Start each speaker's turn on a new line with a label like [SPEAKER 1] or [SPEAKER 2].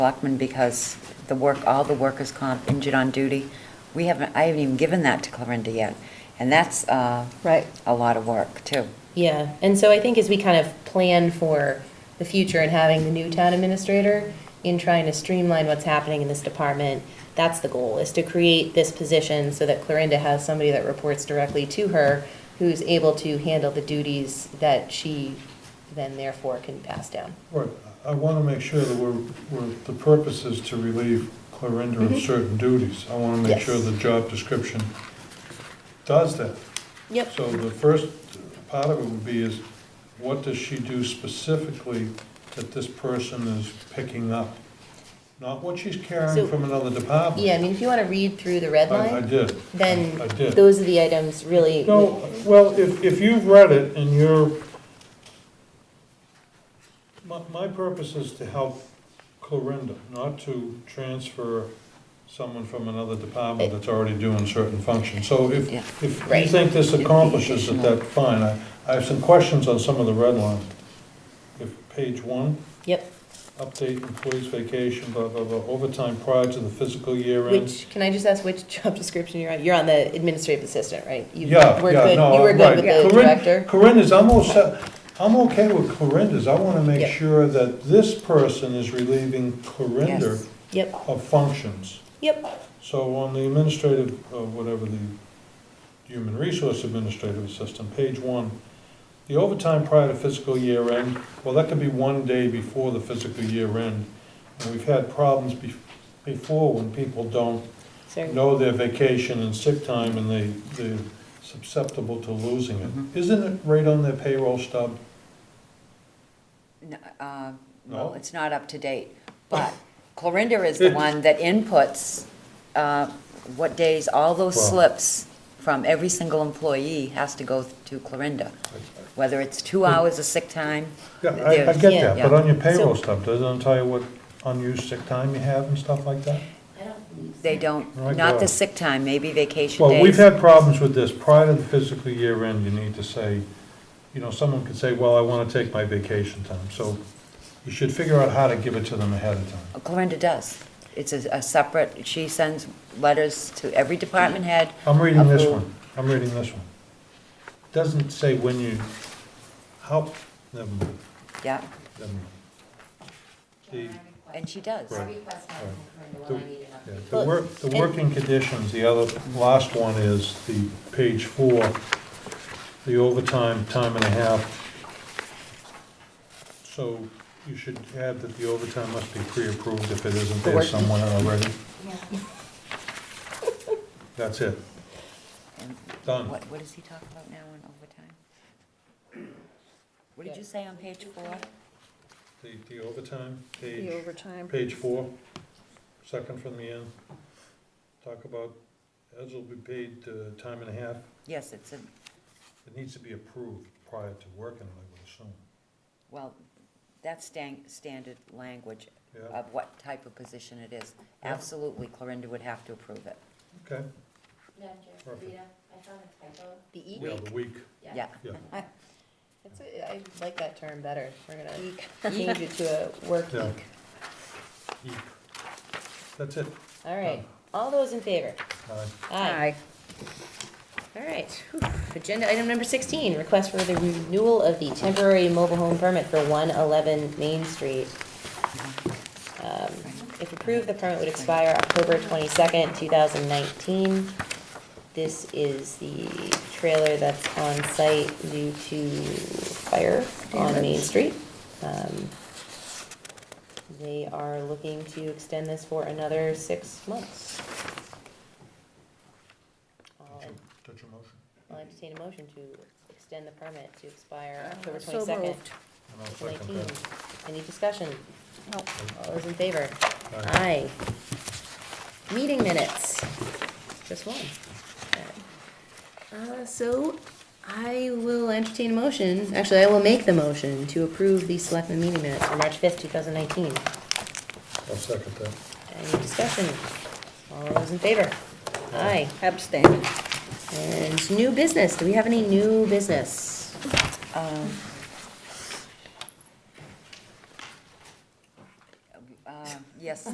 [SPEAKER 1] Selectmen because the work, all the workers' comp injured on duty, we haven't, I haven't even given that to Clarinda yet. And that's uh,
[SPEAKER 2] Right.
[SPEAKER 1] a lot of work, too.
[SPEAKER 2] Yeah, and so I think as we kind of plan for the future and having the new town administrator in trying to streamline what's happening in this department, that's the goal, is to create this position so that Clarinda has somebody that reports directly to her who's able to handle the duties that she then therefore can pass down.
[SPEAKER 3] Right, I want to make sure that we're, we're, the purpose is to relieve Clarinda of certain duties. I want to make
[SPEAKER 2] Mm-hmm. Yes.
[SPEAKER 3] sure the job description does that.
[SPEAKER 2] Yep.
[SPEAKER 3] So the first part of it would be is, what does she do specifically that this person is picking up? Not what she's
[SPEAKER 2] So-
[SPEAKER 3] carrying from another department.
[SPEAKER 2] Yeah, I mean, if you want to read through the red
[SPEAKER 3] I I
[SPEAKER 2] line,
[SPEAKER 3] did.
[SPEAKER 2] then
[SPEAKER 3] I did.
[SPEAKER 2] those are the items really.
[SPEAKER 3] No, well, if, if you've read it and you're, my, my purpose is to help Clarinda, not to transfer someone from another department that's already doing certain functions. So if,
[SPEAKER 1] Yeah.
[SPEAKER 3] if you
[SPEAKER 2] Right.
[SPEAKER 3] think this accomplishes it,
[SPEAKER 1] Additional.
[SPEAKER 3] that's fine. I, I have some questions on some of the red line. If, page one,
[SPEAKER 2] Yep,
[SPEAKER 3] update employees vacation, blah, blah, blah, overtime prior to the fiscal year end.
[SPEAKER 2] Which, can I just ask which job description you're on? You're on the administrative assistant, right? You
[SPEAKER 3] Yeah,
[SPEAKER 2] were
[SPEAKER 3] yeah,
[SPEAKER 2] good-
[SPEAKER 3] no, uh,
[SPEAKER 2] You were good
[SPEAKER 3] right.
[SPEAKER 2] with the
[SPEAKER 3] Corinne-
[SPEAKER 2] director?
[SPEAKER 3] Corinda's, I'm also, I'm okay with Corinda's, I wanna make
[SPEAKER 2] Yeah.
[SPEAKER 3] sure that this person is relieving Corinda
[SPEAKER 1] Yes.
[SPEAKER 2] Yep,
[SPEAKER 3] of functions.
[SPEAKER 2] yep,
[SPEAKER 3] So on the administrative, uh, whatever the human resource administrative assistant, page one, the overtime prior to fiscal year end, well, that could be one day before the fiscal year end. And we've had problems bef- before when people don't
[SPEAKER 2] sorry.
[SPEAKER 3] know their vacation and sick time and they, they're susceptible to losing
[SPEAKER 1] Mhm.
[SPEAKER 3] it. Isn't it right on their payroll stub?
[SPEAKER 1] N- uh,
[SPEAKER 3] No.
[SPEAKER 1] Well, it's not up to date, but Clarinda is the one that inputs uh, what days, all those
[SPEAKER 3] Wow.
[SPEAKER 1] slips from every single employee has to go to Clarinda, whether it's two hours of sick time.
[SPEAKER 3] Yeah, I, I
[SPEAKER 1] there's-
[SPEAKER 3] get that, but
[SPEAKER 1] yeah.
[SPEAKER 3] on your payroll
[SPEAKER 2] So-
[SPEAKER 3] stub, doesn't it tell you what unused sick time you have and stuff like that?
[SPEAKER 1] They don't,
[SPEAKER 3] Right,
[SPEAKER 1] not
[SPEAKER 3] yeah.
[SPEAKER 1] the sick time, maybe vacation days.
[SPEAKER 3] Well, we've had problems with this. Prior to the fiscal year end, you need to say, you know, someone could say, well, I wanna take my vacation time. So you should figure out how to give it to them ahead of time.
[SPEAKER 1] Clarinda does. It's a a separate, she sends letters to every department head.
[SPEAKER 3] I'm reading this
[SPEAKER 1] Approve.
[SPEAKER 3] one, I'm reading this one. Doesn't say when you, how, never mind.
[SPEAKER 1] Yeah,
[SPEAKER 3] them. The,
[SPEAKER 1] and she does.
[SPEAKER 3] Right.
[SPEAKER 4] request
[SPEAKER 3] Right.
[SPEAKER 4] Corinda
[SPEAKER 3] The-
[SPEAKER 4] when I need an
[SPEAKER 3] yeah,
[SPEAKER 4] update.
[SPEAKER 3] the work, the working conditions, the other, last one is the page four, the overtime, time and a half. So you should add that the overtime must be pre-approved if it isn't there
[SPEAKER 1] Correct.
[SPEAKER 3] somewhere already.
[SPEAKER 4] Yeah.
[SPEAKER 3] That's it,
[SPEAKER 1] And
[SPEAKER 3] done.
[SPEAKER 1] What, what does he talk about now in overtime? What did you say on page four?
[SPEAKER 3] The, the overtime,
[SPEAKER 5] The
[SPEAKER 3] page,
[SPEAKER 5] overtime.
[SPEAKER 3] page four, second from the end. Talk about, as will be paid, uh, time and a half.
[SPEAKER 1] Yes, it's in,
[SPEAKER 3] It needs to be approved prior to working, I would assume.
[SPEAKER 1] well, that's stan- standard language
[SPEAKER 3] Yeah,
[SPEAKER 1] of what type of position it is.
[SPEAKER 3] Oh. Yeah.
[SPEAKER 1] Absolutely, Clarinda would have to approve it.
[SPEAKER 3] okay.
[SPEAKER 4] Madam Chair,
[SPEAKER 3] Perfect.
[SPEAKER 4] Rita, I found a typo.
[SPEAKER 2] The
[SPEAKER 3] Yeah, the week,
[SPEAKER 1] Yeah.
[SPEAKER 3] yeah.
[SPEAKER 2] That's a- I like that term better. We're gonna change it to a work
[SPEAKER 3] Yeah.
[SPEAKER 2] week.
[SPEAKER 3] Eek. That's it.
[SPEAKER 2] All right, all those in favor?
[SPEAKER 3] Aye.
[SPEAKER 2] Aye. All right, Whew. agenda item number sixteen, request for the renewal of the temporary mobile home permit for one eleven Main Street. Um, If approved, the permit would expire October twenty-second, two thousand nineteen. This is the trailer that's on site due to fire on Main Street. Um, They are looking to extend this for another six months. I'll
[SPEAKER 3] Touch your- touch your motion.
[SPEAKER 2] I'll entertain a motion to extend the permit to expire October
[SPEAKER 5] So
[SPEAKER 2] twenty-second,
[SPEAKER 5] moved.
[SPEAKER 3] And I'll second
[SPEAKER 2] nineteen.
[SPEAKER 3] that.
[SPEAKER 2] Any discussion? All those in favor?
[SPEAKER 3] Aye.
[SPEAKER 2] Aye. Meeting minutes, just one. Uh, so I will entertain a motion, actually, I will make the motion to approve the selectmen meeting minutes for March fifth, two thousand nineteen.
[SPEAKER 3] I'll second that.
[SPEAKER 2] Any discussion? All those in favor? Aye.
[SPEAKER 5] Abstain.
[SPEAKER 2] And new business, do we have any new business?
[SPEAKER 1] Um, Um,